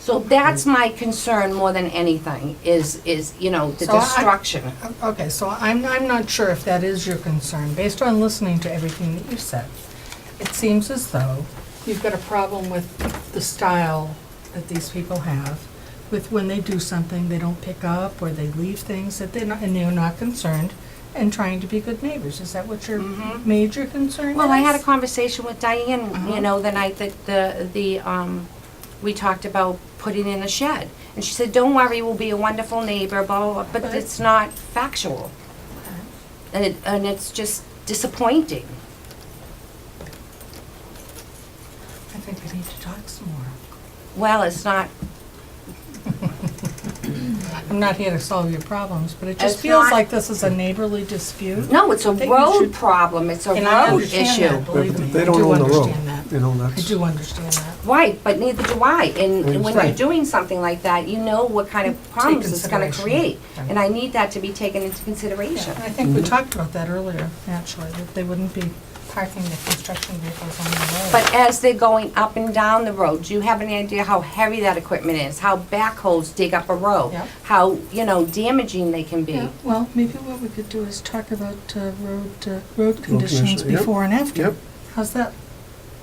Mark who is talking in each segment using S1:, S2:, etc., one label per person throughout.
S1: So that's my concern more than anything, is, is, you know, the
S2: So I-
S1: destruction.
S2: Okay, so I'm, I'm not sure if that is your concern, based on listening to everything that you've said. It seems as though you've got a problem with the style that these people have, with when they do something, they don't pick up, or they leave things that they're not, and they're not concerned, and trying to be good neighbors. Is that what your major concern is?
S1: Mm-hmm. Well, I had a conversation with Diane, you know, the night that the, the, um, we talked about putting in a shed. And she said, don't worry, we'll be a wonderful neighbor, blah, blah, blah, but
S2: Right.
S1: it's not factual. And it, and it's just disappointing.
S2: I think we need to talk some more.
S1: Well, it's not,
S2: I'm not here to solve your problems, but it just
S1: It's
S2: feels
S1: not-
S2: like this is a neighborly dispute.
S1: no, it's a
S2: That you
S1: road
S2: should-
S1: problem, it's a
S2: And I
S1: road
S2: understand that,
S1: issue.
S2: believe me.
S3: They
S2: I
S3: don't
S2: do
S3: own the road,
S2: understand that.
S3: you know,
S2: I
S3: that's,
S2: do understand that.
S1: Right, but neither do I, and when you're
S2: Right.
S1: doing something like that, you know what kind of problems it's gonna
S2: consideration.
S1: create.
S2: Right.
S1: And I need that to be taken into consideration.
S2: I think we talked about that earlier, actually, that they wouldn't be parking the construction vehicles on the road.
S1: But as they're going up and down the road, do you have any idea how heavy that equipment is? How backhoes dig up a road?
S2: Yeah.
S1: How, you know, damaging they can be?
S2: Yeah, well, maybe what we could do is talk about uh, road, uh, road conditions
S3: conditions, yep,
S2: before and after.
S3: yep.
S2: How's that?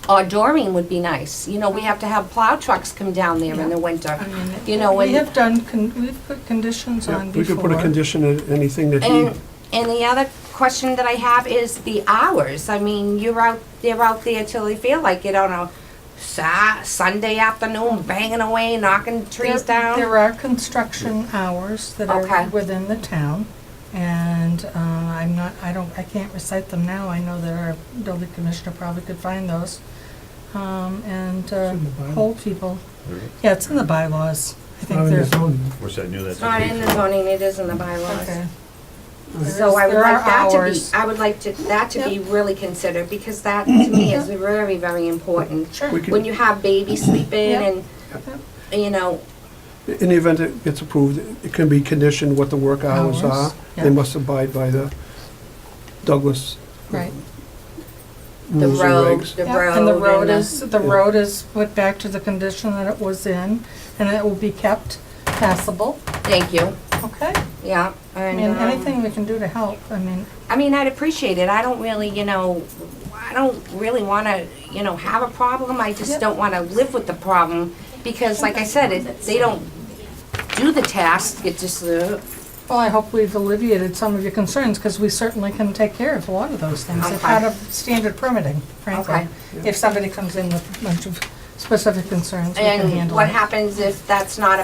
S1: Or dooring would be nice. You know, we have to have plow trucks come down there in
S2: Yeah.
S1: the winter.
S2: I mean, it-
S1: You know,
S2: We
S1: and,
S2: have done, con- we've put conditions
S3: yeah,
S2: on
S3: we
S2: before.
S3: could put a condition in anything that he,
S1: and, and the other question that I have is the hours. I mean, you're out, they're out there till they feel like it on a Sa- Sunday afternoon, banging away, knocking trees
S2: There-
S1: down.
S2: There are construction hours that
S1: Okay.
S2: are within the town, and uh, I'm not, I don't, I can't recite them now. I know that our building commissioner probably could find those. Um, And uh,
S3: in the bylaws.
S2: poll people, yeah, it's in the bylaws. I
S3: not
S2: think
S3: in the
S2: there's.
S3: zone.
S4: Wish I knew that.
S1: It's not in the zoning, it is in the bylaws.
S2: Okay.
S1: So I would
S2: There are
S1: like that to be,
S2: hours.
S1: I would like to, that to be really considered, because that to me is very, very important.
S2: Sure.
S3: We
S1: When
S3: could,
S1: you have babies sleeping
S2: Yeah.
S1: and, you know,
S3: in the event it gets approved, it can be conditioned what the work hours
S2: Hours,
S3: are. They
S2: yeah.
S3: must abide by the Douglas
S2: Right.
S1: the
S3: rules and
S1: road,
S3: regs.
S1: the
S2: Yeah,
S1: road.
S2: And the road
S1: and the-
S2: is, the
S3: Yeah.
S2: road is put back to the condition that it was in, and it will be kept passable.
S1: Thank you,
S2: Okay.
S1: yeah.
S2: I
S1: And,
S2: mean,
S1: um,
S2: anything we can do to help, I mean,
S1: I mean, I'd appreciate it. I don't really, you know, I don't really want to, you know, have a problem. I just
S2: Yep.
S1: don't want to live with the problem, because like I said, it- they don't do the task, it just, uh,
S2: Well, I hope we've alleviated some of your concerns, because we certainly can take care of a lot of those things. If
S1: Okay.
S2: out of standard permitting,
S1: Okay.
S2: frankly. If somebody comes in with a bunch of specific concerns, we can
S1: And
S2: handle
S1: what
S2: it.
S1: happens if that's not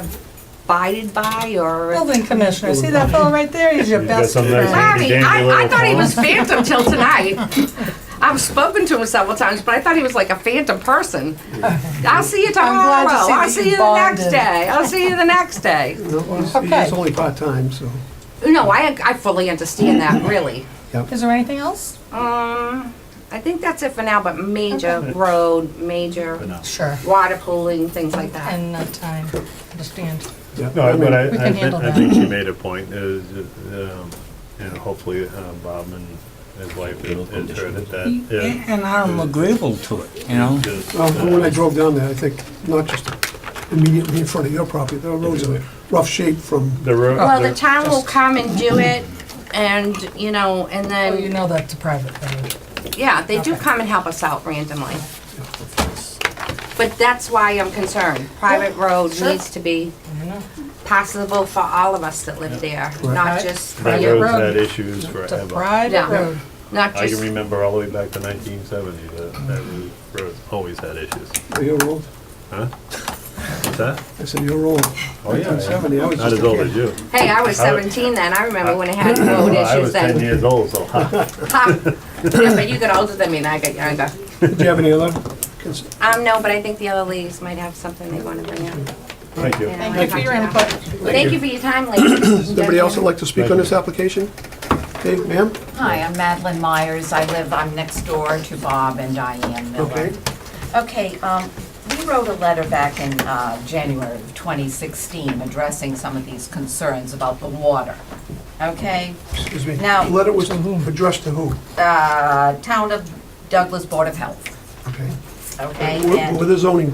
S1: abided by or?
S2: Building commissioner, see that fellow right there? He's your
S4: He's got
S2: best
S4: something that's-
S2: friend.
S1: Larry, I, I thought he was phantom till tonight. I've spoken to him several times, but I thought he was like a phantom person. I'll see you
S2: I'm glad
S1: tomorrow,
S2: to see
S1: I'll
S2: that
S1: see
S2: you
S1: you the next
S2: bonded.
S1: day, I'll see you the next day.
S3: No, he's-
S2: Okay.
S3: He's only part-time, so,
S1: No, I, I fully understand that, really.
S3: yeah.
S2: Is there anything else?
S1: Um, I think that's it for now, but major road, major
S2: Sure.
S1: water pooling, things like that.
S2: And uh, time, understand.
S3: yeah. I
S4: No,
S3: mean,
S4: but I,
S2: We
S4: I
S2: can
S4: think,
S2: handle
S4: I
S2: that.
S4: think she made a point, is, um, and hopefully uh, Bob and his wife has heard it, that, yeah.
S5: And I'm agreeable to it, you know?
S4: just,
S3: Well,
S4: uh,
S3: when I drove down there, I think, not just immediately in front of your property, the roads are in rough shape from
S4: The road.
S1: Well, the town will come and
S4: Mm-hmm.
S1: do it and, you know, and
S2: Oh,
S1: then.
S2: you know that's a private thing.
S1: Yeah, they do
S2: Okay.
S1: come and help us out randomly. But that's why I'm concerned. Private road
S2: sure.
S1: needs to be
S2: I know.
S1: possible for all of us that live there, not
S2: Right.
S1: just for
S4: That
S2: Yeah.
S1: you.
S4: road's had issues
S2: It's a
S4: forever.
S2: private
S1: Yeah.
S2: road.
S1: Not
S4: I can
S1: just,
S4: remember all the way back to nineteen seventy, that, that road always had issues.
S3: your road.
S4: Huh? What's that?
S3: I said, your road.
S4: Oh, yeah.
S3: 1970, I was
S4: Not
S3: just
S4: as
S3: a
S4: old
S3: kid.
S4: as you.
S1: hey, I was 17 then. I remember when it had road
S4: Well, I
S1: issues
S4: was ten
S1: then.
S4: years old, so, ha.
S1: Ha. Yeah, but you got older than me and I got younger.
S3: Did you have any other? cons-
S1: Um, no, but I think the other ladies might have something they want to bring up.
S4: thank you.
S1: Yeah.
S2: Thank you for your input.
S1: Thank you for your time, ladies.
S3: Somebody else would like to speak on this application? Okay, ma'am?
S6: Hi, I'm Madeline Myers. I live, I'm next door to Bob and Diane Miller.
S3: Okay.
S6: Okay, um, we wrote a letter back in uh, January of 2016 addressing some of these concerns about the water. Okay?
S3: Excuse me.
S6: Now-
S3: The Letter was addressed to who?
S6: Uh, Town of Douglas Board of Health,
S3: Okay.
S6: okay?
S3: We're
S6: And-
S3: we're the zoning